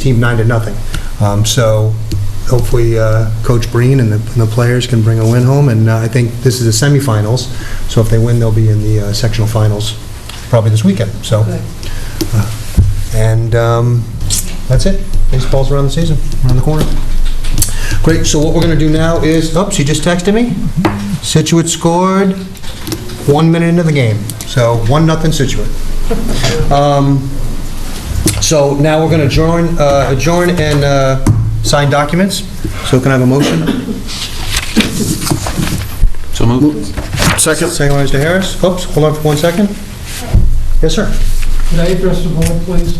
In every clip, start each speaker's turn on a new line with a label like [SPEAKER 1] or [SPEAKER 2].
[SPEAKER 1] team nine to nothing. Um, So hopefully uh, Coach Breen and the and the players can bring a win home, and uh, I think this is the semifinals, so if they win, they'll be in the uh, sectional finals probably this weekend, so. uh, And um, that's it. Baseball's around the season, around the corner. Great, so what we're going to do now is, oops, you just texted me? Situate scored one minute into the game, so one nothing Situate. Um, So now we're going to adjourn, uh, adjourn and uh, sign documents. So can I have a motion?
[SPEAKER 2] So moved.
[SPEAKER 1] Second. Second by Mr. Harris. Oops, hold on for one second. Yes, sir.
[SPEAKER 3] Could I address the board, please?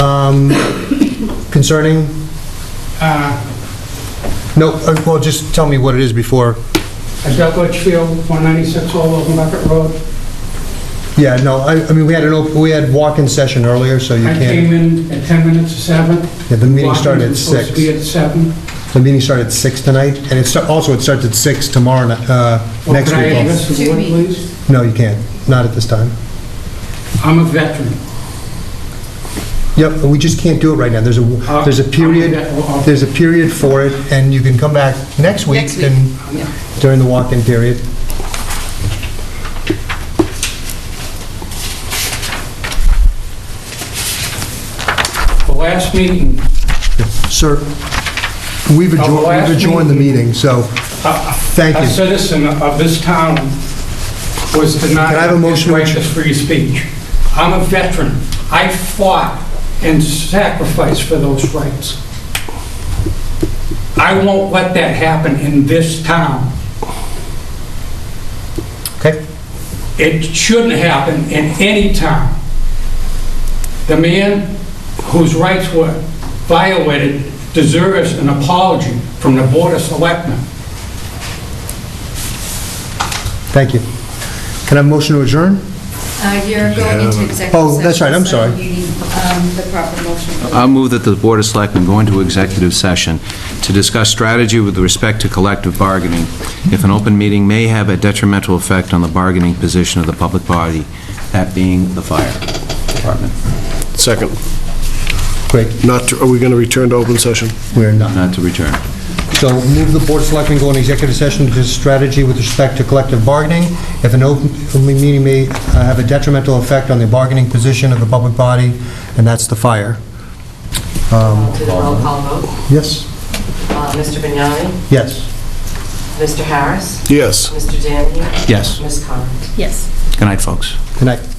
[SPEAKER 1] Um, Concerning,
[SPEAKER 3] Uh,
[SPEAKER 1] no, uh, well, just tell me what it is before.
[SPEAKER 3] I've got Litchfield, 196 Old Open Bucket Road.
[SPEAKER 1] Yeah, no, I I mean, we had an, op- we had walk-in session earlier, so you
[SPEAKER 3] I
[SPEAKER 1] can't,
[SPEAKER 3] came in at 10 minutes to 7.
[SPEAKER 1] yeah, the meeting started
[SPEAKER 3] Walk-in
[SPEAKER 1] at
[SPEAKER 3] was supposed to
[SPEAKER 1] six.
[SPEAKER 3] be at 7.
[SPEAKER 1] The meeting started at six tonight, and it sta- also it starts at six tomorrow, ni- uh,
[SPEAKER 3] Well,
[SPEAKER 1] next
[SPEAKER 3] Could I
[SPEAKER 1] week.
[SPEAKER 3] address the
[SPEAKER 4] Two
[SPEAKER 3] board,
[SPEAKER 4] weeks.
[SPEAKER 3] please?
[SPEAKER 1] No, you can't, not at this time.
[SPEAKER 3] I'm a veteran.
[SPEAKER 1] Yep, but we just can't do it right now. There's a,
[SPEAKER 3] Uh,
[SPEAKER 1] there's a
[SPEAKER 3] I'm
[SPEAKER 1] period,
[SPEAKER 3] vet- well,
[SPEAKER 1] there's a period for it, and you can come back next week
[SPEAKER 4] Next week.
[SPEAKER 1] and during the walk-in period.
[SPEAKER 3] The last meeting,
[SPEAKER 1] Sir, we've
[SPEAKER 3] the
[SPEAKER 1] adjourned,
[SPEAKER 3] last
[SPEAKER 1] we've adjourned the meeting, so
[SPEAKER 3] a
[SPEAKER 1] thank
[SPEAKER 3] a
[SPEAKER 1] you.
[SPEAKER 3] citizen of this town was denied
[SPEAKER 1] Can I have a
[SPEAKER 3] his
[SPEAKER 1] motion to
[SPEAKER 3] right
[SPEAKER 1] adj-
[SPEAKER 3] to free speech. I'm a veteran. I fought and sacrificed for those rights. I won't let that happen in this town.
[SPEAKER 1] Okay,
[SPEAKER 3] It shouldn't happen in any town. The man whose rights were violated deserves an apology from the Board of Selectmen.
[SPEAKER 1] thank you. Can I have a motion to adjourn?
[SPEAKER 4] Uh, You're going into executive session.
[SPEAKER 1] Oh, that's right, I'm
[SPEAKER 4] so
[SPEAKER 1] sorry.
[SPEAKER 4] You need um, the proper motion.
[SPEAKER 2] I'll move that the Board of Selectmen go into executive session to discuss strategy with respect to collective bargaining if an open meeting may have a detrimental effect on the bargaining position of the public body, that being the fire department.
[SPEAKER 5] Second.
[SPEAKER 1] Great,
[SPEAKER 5] Not, to- are we going to return to open session?
[SPEAKER 1] we're not.
[SPEAKER 2] Not to return.
[SPEAKER 1] So move the Board of Selectmen go into executive session to discuss strategy with respect to collective bargaining. If an open open meeting may uh, have a detrimental effect on the bargaining position of the public body, and that's the fire.
[SPEAKER 6] To the roll call vote,
[SPEAKER 1] Yes?
[SPEAKER 6] Uh, Mr. Vignani,
[SPEAKER 1] Yes.
[SPEAKER 6] Mr. Harris,
[SPEAKER 5] Yes.
[SPEAKER 6] Mr. Danheim,
[SPEAKER 2] Yes.
[SPEAKER 6] Ms. Collins.
[SPEAKER 4] Yes.
[SPEAKER 2] Good night, folks.
[SPEAKER 1] Good night.